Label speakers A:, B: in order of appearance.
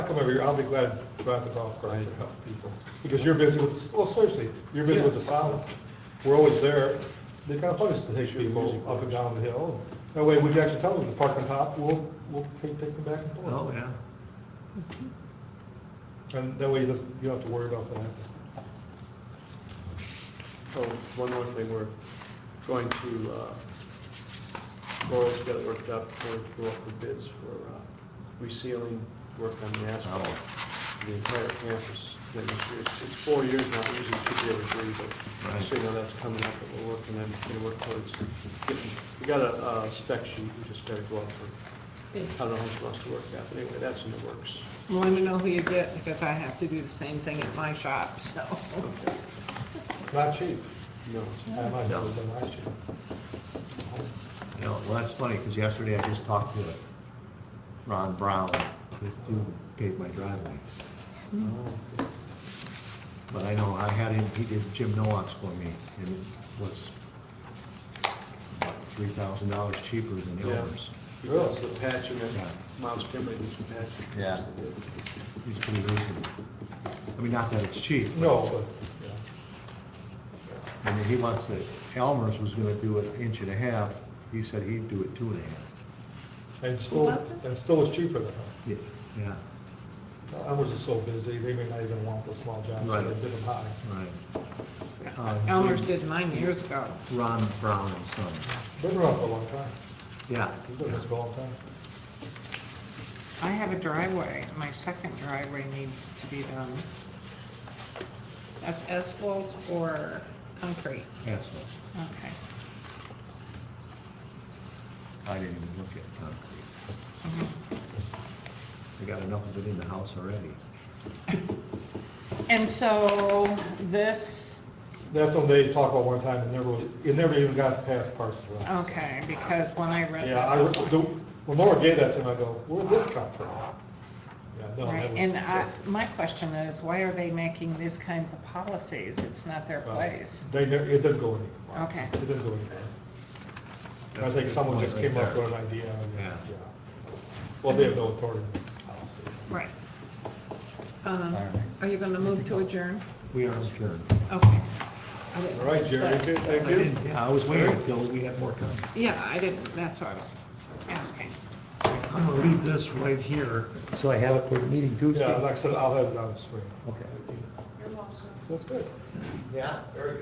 A: come over here, I'll be glad to drive the golf cart to help people. Because you're busy with, well, seriously, you're busy with the solid. We're always there. They kind of punish the people up and down the hill. That way, we can actually tell them to park on top, we'll, we'll take, take them back and forth.
B: Oh, yeah.
A: And that way, you just, you don't have to worry about that.
C: Oh, one more thing, we're going to, uh, Laura's got it worked up, we're going to go up for bids for uh, resealing work on the asphalt.
B: Oh.
C: The entire campus, then this year, it's- it's four years now, it usually should be every three, but
B: Right.
C: so you know that's coming up, that we're working on, gonna work towards getting, we got a uh, spec sheet, we just gotta go out for, I don't know how it's supposed to work out, but anyway, that's in the works.
D: Want to know who you get, because I have to do the same thing at my shop, so.
A: It's not cheap.
C: No,
A: I might have it done last year.
B: You know, well, that's funny, because yesterday I just talked to Ron Brown, who- who paved my driveway. Mm-hmm. But I know, I had him, he did Jim Noah's for me, and it was about three thousand dollars cheaper than
C: Yeah.
B: Elmer's.
C: because the patch and then
B: Yeah.
C: Miles Kimley did some patching.
B: Yeah. He's pretty reasonable. I mean, not that it's cheap. but-
A: No,
B: I mean, he wants to, Elmer's was gonna do an inch and a half, he said he'd do it two and a half.
A: but, and still,
D: Who was it?
A: and still it's cheaper than
B: Yeah. Yeah,
A: that. I was just so busy, they may not even want the small jobs, so they
B: Right.
A: did them high.
B: right. Um,
D: Elmer's did mine years ago.
B: Ron Brown and Son,
A: Been around for a long time.
B: yeah.
A: He's been around for a long time.
D: I have a driveway, my second driveway needs to be done. That's asphalt or concrete?
B: That's
D: Okay.
B: I didn't even look at concrete.
D: Mhm.
B: I got enough of it in the house already.
D: And so this,
A: That's something they talked about one time, and never, really- it never even got past parts of that.
D: okay, because when I read
A: Yeah,
D: that.
A: I, the- when Laura gave that to him, I go, where'd this come from? Yeah, no, that
D: Right,
A: was-
D: and I, my question is, why are they making these kinds of policies? It's not their
A: Well,
D: place.
A: uh, They, ne- it didn't go anywhere.
D: Okay.
A: It didn't go anywhere. And I
B: That's a
A: think
B: good
A: someone
B: point
A: just
B: right
A: came up
B: there.
A: with an idea, and,
B: Yeah.
A: yeah. Well, they have no authority. obviously.
D: Right. Um,
B: All right.
D: are you gonna move to adjourn?
B: We are adjourned.
D: Okay.
A: All right, Jerry,
D: Jerry.
A: thank
B: I
A: you.
B: didn't- Yeah, I was waiting until we had more time.
D: Yeah, I didn't, that's what I was asking.
B: I'm gonna leave this right here, so I have it for the meeting Tuesday.
A: Yeah, like I said, I'll have it on the screen.
B: Okay.
A: That's good.
B: Yeah, very good.